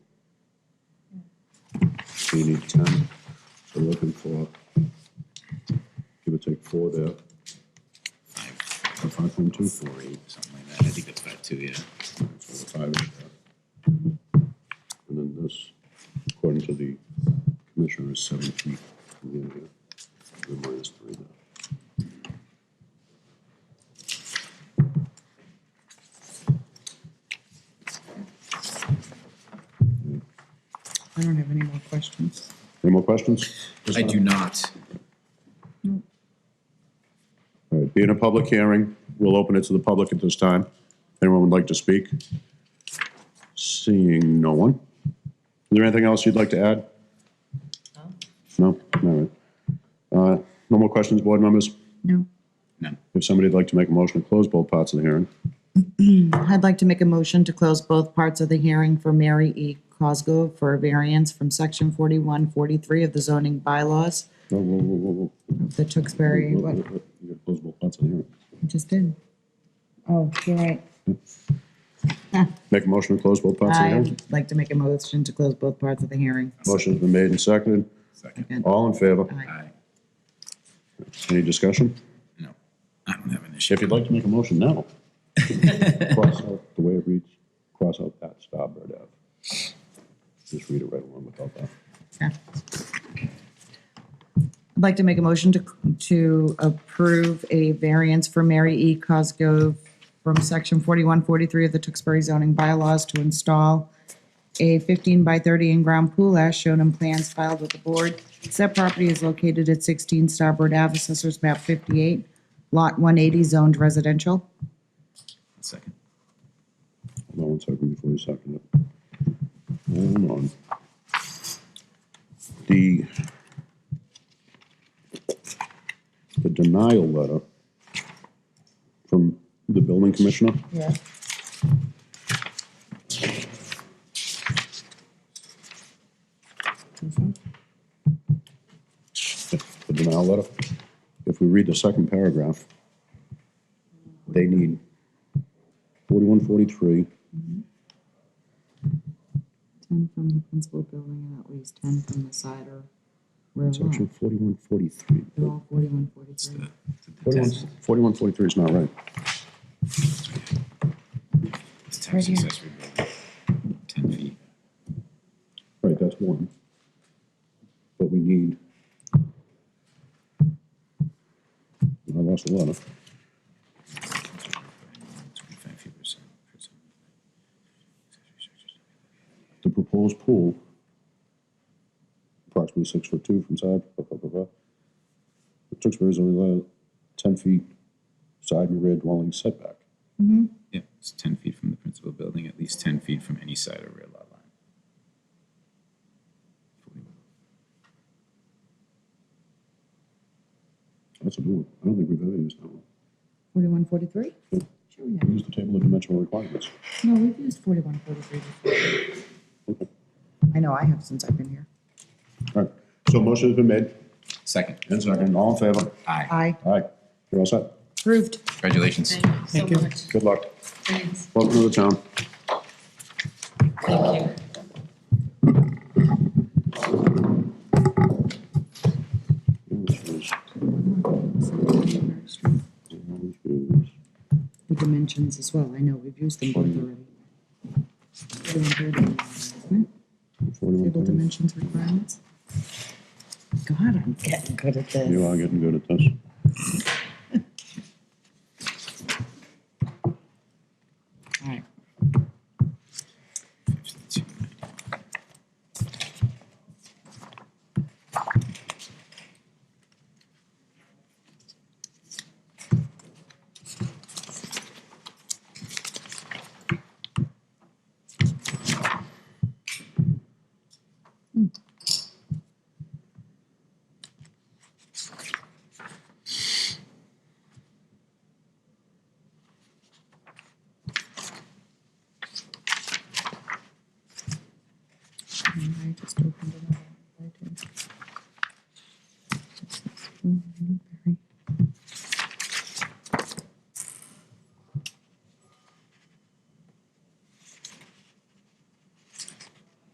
we need ten. We're looking for, give or take four there, Five, or five point two, four, eight, something like that. I think it's five, two, yeah. four, five in there. And then this, according to the commissioner, is seven feet from the area, and minus three there. I don't have any more questions. Any more questions? I do not. All right, being a public hearing, we'll open it to the public at this time. Anyone would like to speak? Seeing no one. Is there anything else you'd like to add? No? All right. Uh, No more questions, board members? No. No. If somebody'd like to make a motion to close both parts of the hearing, I'd like to make a motion to close both parts of the hearing for Mary E. Cosgrove for a variance from section forty-one, forty-three of the zoning bylaws, whoa, whoa, whoa, whoa, whoa. of the Tewksbury, Whoa, whoa, what, whoa. You gotta close both parts of the hearing. I just did. Oh, you're right. Make a motion to close both parts of the hearing? I'd like to make a motion to close both parts of the hearing. Motion's been made and seconded. Second. Second. All in favor? Aye. Aye. Any discussion? No. I don't have an issue. If you'd like to make a motion now. Cross out the way it reads, cross out that Starboard Ave. Just read it right along without that. Okay. I'd like to make a motion to, to approve a variance for Mary E. Cosgrove from section forty-one forty-three of the Tewksbury zoning bylaws to install a fifteen by thirty in-ground pool as shown in plans filed with the board. Said property is located at sixteen Starboard Ave, Assessors map fifty-eight, lot one eighty, zoned residential. Second. Hold on one second before you second it. Hold on. The the denial letter from the building commissioner, Yeah. the denial letter, if we read the second paragraph, they need forty-one, forty-three, Ten from the principal building and at least ten from the side or rear section lot. forty-one, forty-three. They're all forty-one forty-three. Forty-one, forty-three is not right. It's tax accessory building. Ten feet. Right, that's one. But we need. I lost a lot of, Twenty-five feet per side. the proposed pool, approximately six foot two from side, blah, blah, blah, blah. The Tewksbury's only allowed ten feet side and rear dwelling setback. Yeah, it's ten feet from the principal building, at least ten feet from any side or rear lot line. That's a new one. I don't think we've ever used that one. Forty-one forty-three? Sure we We use the table of dimensional requirements. have. No, we've used forty-one forty-three before. Okay. I know I have since I've been here. All right, so motion's been made, Second. and second, all in favor? Aye. I All right, you're all set. approved. Congratulations. Thank you so much. Good luck. Thanks. Welcome to the town. Thank you. This was- All The dimensions as well, I know, we've used them both already. Forty-one thirty. Table dimensions requirements. God, I'm getting good at this. You are getting good at this. All right. And I just opened it up.